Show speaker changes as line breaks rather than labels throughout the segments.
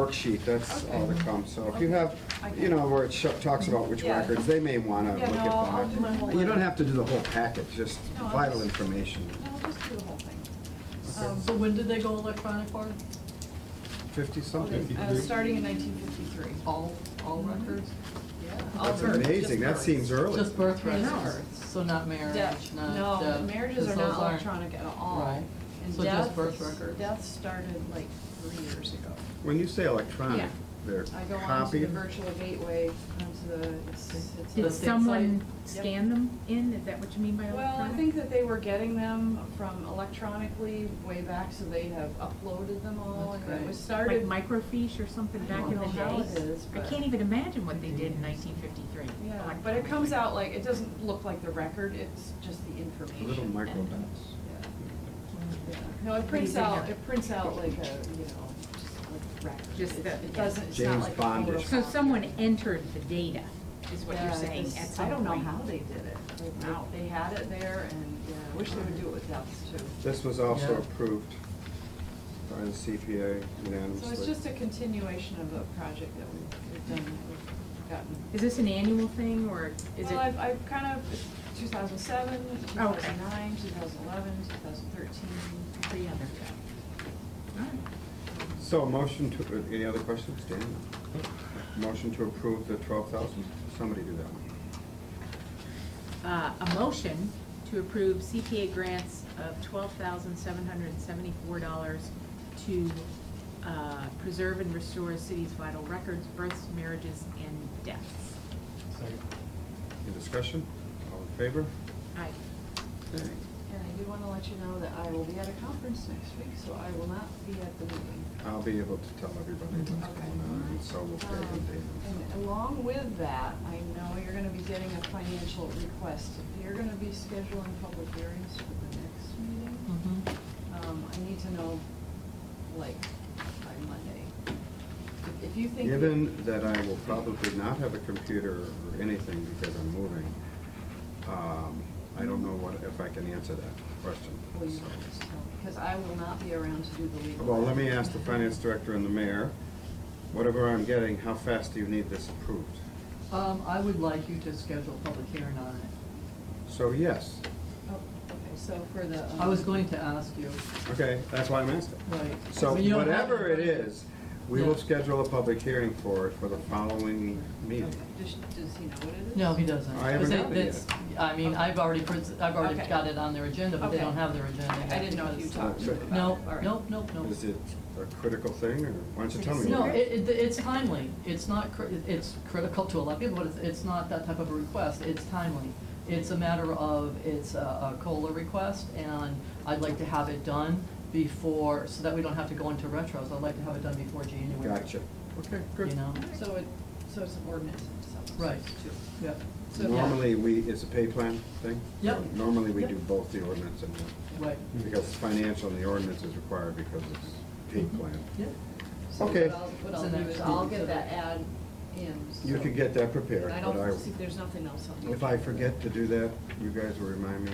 worksheet, that's all that comes. So if you have,
Okay.
you know, where it sho- talks about which
Yeah.
records, they may want to
Yeah,
look
no,
at
I'll- I'll do my
that.
whole
You don't
list.
have to do the whole packet, just
No, I'll
vital
just-
information.
No, just do the whole thing.
Um, So when did they go electronic, Barb?
Fifty-something.
Uh, Starting in 1953.
All, all records?
Yeah. all
Oh, That's
births, just
amazing, that
births.
seems early.
Mhm. Just birth
Yeah.
records, so not marriage,
Death,
not
no,
death,
marriages
'cause
are not
those aren't-
electronic at all.
Right.
And
So just
death
birth
is-
records.
Death started like three years ago.
When you say electronic,
Yeah.
they're
I go onto the
copied?
virtual gateway, onto the, it's, it's.
the
Did
state
someone
site? Yep.
scan them in? Is that what you mean by electronic?
Well, I think that they were getting them from electronically way back, so they have uploaded them all,
That's
and it
great.
was
Like
started.
microfiche or something
I
back
don't
in the
know how it
day?
is,
I
but-
can't even imagine what they did in nineteen fifty-three.
Yeah, but it comes out like, it doesn't look like the record, it's just the information.
Little
and-
micro
Yeah.
out.
Yeah. No, it prints
Anything
out,
that-
it prints out like a, you know, just like records.
Just
It-
the-
It doesn't, it's not
James
like.
Bond or
a
So
photocopy.
someone entered the data, is what
Yeah,
you're saying,
it's-
at some
I
point.
don't know how they did it. They-
Wow.
They had it there and, yeah, I wish they would do it with deaths too.
This was also
Yeah.
approved by the CPA unanimously.
So it's just a continuation of a project that we've, we've done, that we've gotten.
Is this an annual thing, or is it? Oh,
Well, I've, I've kind of, it's 2007, 2009, 2011, 2013.
Three other. All right.
So motion to, uh, any other questions, Dan? Motion to approve the twelve thousand? Somebody do that one.
Uh, a motion to approve CPA grants of twelve thousand seven hundred and seventy-four dollars to, uh, preserve and restore city's vital records, births, marriages, and deaths.
Any discussion? All in favor?
I,
Okay.
And I do want to let you know that I will be at a conference next week, so I will not be at the meeting.
I'll be able to tell everybody what's going on, and so we'll stay
Um,
updated.
And along with that, I know you're gonna be getting a financial request. You're gonna be scheduling public hearings for the next meeting.
Mm-hmm.
Hmm.
Um, I need to know, like, by Monday. If- If you think. that-
Given that I will probably not have a computer or anything because I'm moving, um, I don't know what, if I can answer that question.
Well, you
so.
can just tell, because I will not be around to do the legal.
Well, let me ask the finance director and the mayor, whatever I'm getting, how fast do you need this approved?
Um, I would like you to schedule a public hearing on it.
So yes,
Oh, Okay, so for the. um,
I was going to ask you,
okay, that's why I'm asking.
right.
So
but you don't have
whatever it
in front of
is, we will
Yeah.
schedule a public hearing for it for the following meeting.
Does, does he know what it is?
you. No, he doesn't.
I haven't
Because
got it yet.
it's- I mean, I've already, pres- I've already
Okay.
got it on their agenda, but they
Okay.
don't have their agenda.
I didn't know if you
because-
talked to
Uh,
him about it.
No,
All right.
nope, nope, nope.
Is it a critical thing, or why don't you tell me?
No,
what-
it, it, it's timely. It's not, cri- it's critical to a lot of people, but it's, it's not that type of a request. It's timely. It's a matter of, it's a, a COLA request, and I'd like to have it done before, so that we don't have to go into retros. I'd like to have it done before January.
Gotcha. Okay,
You
good.
know?
So it, so it's an ordinance in itself. so
Right.
it's two.
Yep.
So-
Normally, we, it's a pay plan thing?
Yep.
So Normally, we
Yep. Hmm.
do both the ordinance and, the-
Right.
because it's financial, and the ordinance is required because it's pay plan.
Mm-hmm. Yep.
So
Okay.
what I'll- What I'll
So
do
next
is I'll
week, so
get that
that-
ad in.
You
so-
could get that prepared,
And I
but I,
don't, see, there's nothing else on the.
if I forget to do that, you guys will remind me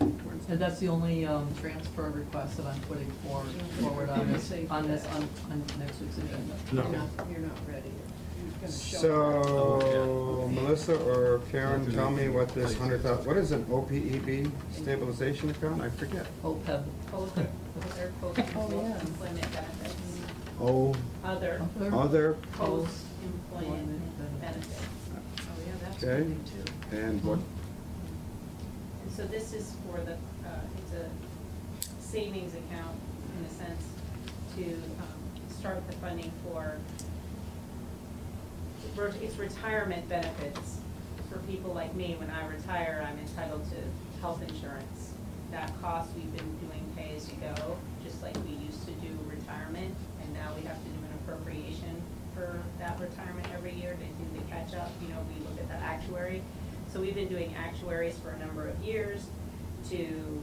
on Wednesday.
And that's the only, um, transfer request that I'm putting forward, forward on this, on this, on, on next week's agenda.
You're
No.
not, you're not ready. You're gonna show up.
So, Melissa or Karen, tell me what this hundred thou, what is an OPEB stabilization account? I forget.
OPEB.
Okay.
Other post-employment
yeah.
benefits,
O,
other
other,
post-employment benefits.
Oh, yeah, that's
Okay.
coming too.
and what,
And so this is for the, uh, it's a savings account in a sense to um, start the funding for, it's retirement benefits for people like me. When I retire, I'm entitled to health insurance. That cost, we've been doing pay-as-you-go, just like we used to do retirement. And now we have to do an appropriation for that retirement every year to do the catch-up. You know, we look at the actuary. So we've been doing actuaries for a number of years to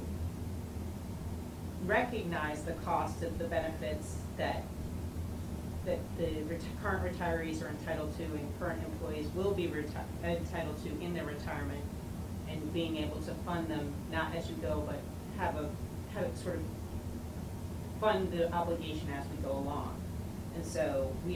recognize the cost of the benefits that, that the ret- current retirees are entitled to and current employees will be reti- entitled to in their retirement and being able to fund them, not as you go, but have a, have it sort of fund the obligation as we go along. And so we